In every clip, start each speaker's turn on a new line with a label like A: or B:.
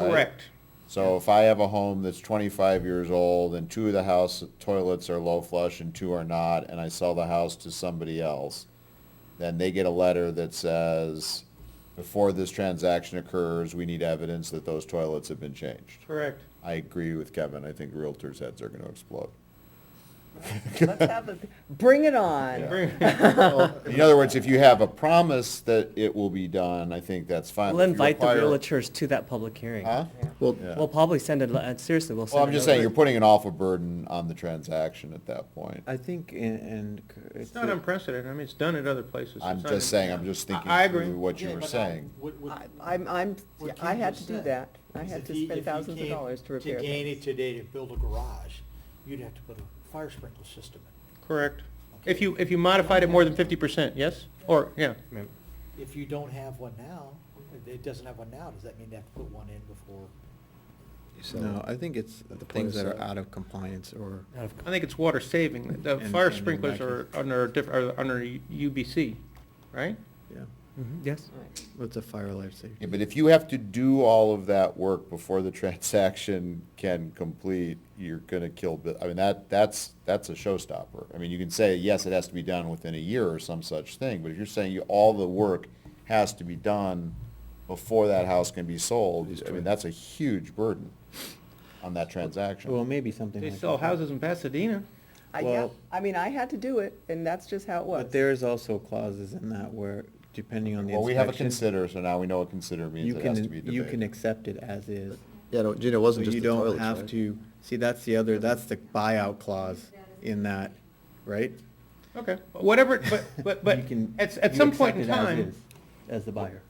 A: right?
B: Correct.
A: So if I have a home that's twenty-five years old and two of the house toilets are low flush and two are not, and I sell the house to somebody else, then they get a letter that says, before this transaction occurs, we need evidence that those toilets have been changed.
B: Correct.
A: I agree with Kevin. I think realtors' heads are gonna explode.
C: Let's have a, bring it on.
A: Yeah.
B: Bring-
A: In other words, if you have a promise that it will be done, I think that's fine.
D: We'll
A: If you
D: invite the
A: Uh, require-
D: realtors to that public hearing.
A: Huh?
E: Well,
A: Yeah.
D: We'll probably send it, uh, seriously, we'll send
A: Well,
D: it.
A: I'm just saying, you're putting an awful burden on the transaction at that point.
E: I think, and- and. c-
B: It's not unprecedented. I mean, it's done at other places.
A: I'm
B: It's not
A: just
B: in-
A: saying, I'm just
B: I-
A: thinking
B: I agree.
A: through what you were
F: um,
A: saying.
C: I- I'm, I'm,
F: uh, What
C: yeah, I
F: Ken
C: had to
F: just
C: do
F: said
C: that. I
F: is
C: had
F: if
C: to
F: he-
C: spend
F: if he
C: thousands of
F: came
C: dollars to repair
F: To gain
C: things.
F: it today to build a garage, you'd have to put a fire sprinkler system in.
B: Correct. If you, if you modified it more than fifty percent, yes? Or, yeah.
F: If you don't have one now, it- it doesn't have one now, does that mean they have to put one in before?
E: No, I think it's
G: point
E: things
G: of
E: that are
G: sale.
E: out of compliance or,
D: Out of-
B: I think it's water saving. The
E: And-
B: fire
E: and
B: sprinklers are
E: evacuate.
B: under, a diff- are under UBC, right?
E: yeah,
D: Mhm, Yes?
C: Right.
E: what's a fire life safety?
A: Yeah, but if you have to do all of that work before the transaction can complete, you're gonna kill, bu- I mean, that, that's, that's a showstopper. I mean, you can say, yes, it has to be done within a year or some such thing, but if you're saying you, all the work has to be done before that house can be sold, I mean, that's a huge burden on that transaction.
E: Well, maybe something
B: They
E: like.
B: sell houses in Pasadena.
C: I, yeah,
E: Well-
C: I mean, I had to do it, and that's just how it was.
E: But there is also clauses in that where, depending on the
A: Well, we have a
E: inspection,
A: consider, so now we know what consider means,
E: you
A: it has to be
E: can,
A: debated.
E: you can accept it as is.
G: Yeah, no, Gina, it
E: But
G: wasn't just
E: you
G: the
E: don't
G: toilets,
E: have
G: right?
E: to, see, that's the other, that's the buyout clause in that, right?
B: Okay, whatever, but, but, but
E: You can-
B: at, at
E: you
B: some
E: accept
B: point in
E: it as
B: time,
E: is, As the buyer,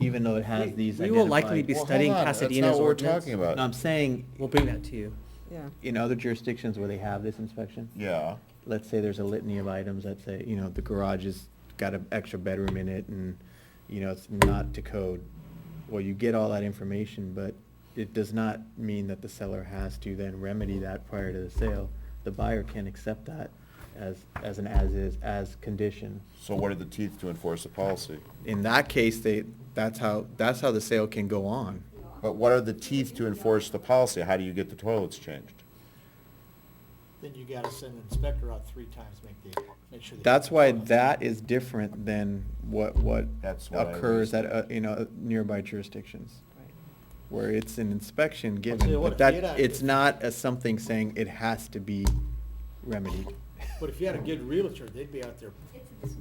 E: even though it has these
D: we will likely be
A: Well,
E: identified-
A: hold
D: studying
A: on,
D: Pasadena's
A: That's not what
D: ordinance.
A: we're talking about.
E: No, I'm saying,
D: We'll bring that to you.
C: Yeah.
E: in other jurisdictions where they have this inspection,
A: Yeah.
E: let's say there's a litany of items that say, you know, the garage has got an extra bedroom in it and, you know, it's not to code. Well, you get all that information, but it does not mean that the seller has to then remedy that prior to the sale. The buyer can accept that as, as an as-is, as condition.
A: So what are the teeth to enforce the policy?
E: In that case, they, that's how, that's how the sale can go on.
A: But what are the teeth to enforce the policy? How do you get the toilets changed?
F: Then you gotta send an inspector out three times, make the, make sure. they-
E: That's why that is different than what, what
A: That's what I
E: occurs
A: was-
E: at, uh, you know, nearby jurisdictions.
C: Right.
E: where it's an inspection
F: tell you
E: given,
F: what,
E: but
F: if you
E: that,
F: had a-
E: it's not a something saying it has to be remedied.
F: But if you had a good realtor, they'd be out there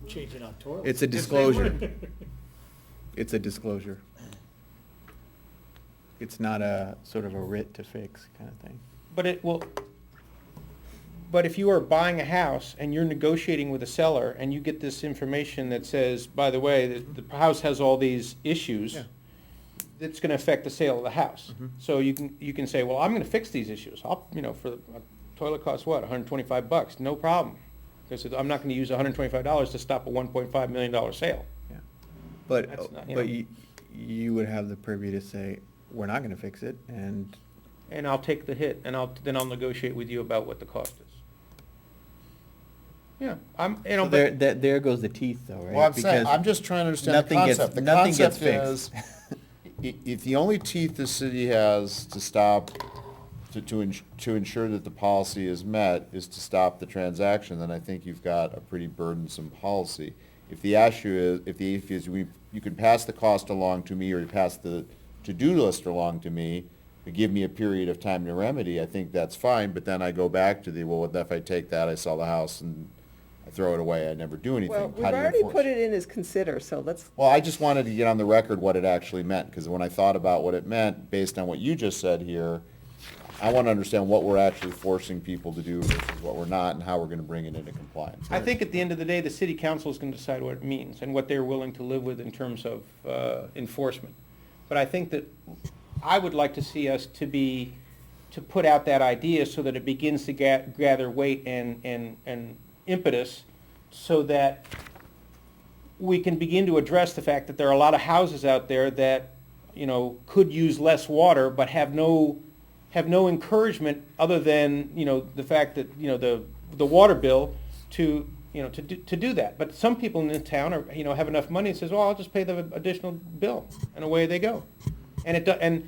F: changing out toilets.
E: It's a
F: If they
E: disclosure.
F: would.
E: It's a disclosure. It's not a sort of a writ to fix kind of thing.
B: but it will, but if you are buying a house and you're negotiating with a seller and you get this information that says, by the way, the, the house has all these issues,
E: Yeah.
B: it's gonna affect the sale of the house.
E: Mhm.
B: So you can, you can say, well, I'm gonna fix these issues. I'll, you know, for, the toilet costs what, hundred and twenty-five bucks? No problem. Because I'm not gonna use hundred and twenty-five dollars to stop a one point five million dollar sale.
E: Yeah. But,
B: That's not-
E: but
B: yeah.
E: you, you would have the purview to say, we're not gonna fix it, and
B: And I'll take the hit, and I'll, then I'll negotiate with you about what the cost is. Yeah, I'm, you know,
E: so there,
B: but,
E: that, there goes the teeth though, right?
A: Well, I'm saying,
E: Because
A: I'm just trying to understand the
E: nothing gets-
A: concept. The
E: nothing gets
A: concept is, i- if the only teeth the city has to stop, to, to, ins- to ensure that the policy is met, is to stop the transaction, then I think you've got a pretty burdensome policy. If the issue is, if the issue is, we, you can pass the cost along to me, or you pass the to-do list along to me, but give me a period of time to remedy, I think that's fine, but then I go back to the, well, what if I take that, I sell the house, and I throw it away, I never do anything.
C: Well, we've
A: How do you
C: already
A: enforce
C: put it in as consider, so let's,
A: well, I just wanted to get on the record what it actually meant, because when I thought about what it meant, based on what you just said here, I want to understand what we're actually forcing people to do versus what we're not, and how we're going to bring it into compliance.
B: I think at the end of the day, the city council is gonna decide what it means and what they're willing to live with in terms of, uh, enforcement. But I think that, I would like to see us to be, to put out that idea so that it begins to ga- gather weight and, and, and impetus, so that we can begin to address the fact that there are a lot of houses out there that, you know, could use less water, but have no, have no encouragement other than, you know, the fact that, you know, the, the water bill to, you know, to do, to do that. But some people in the town are, you know, have enough money and says, well, I'll just pay the additional bill, and away they go. And it, do- and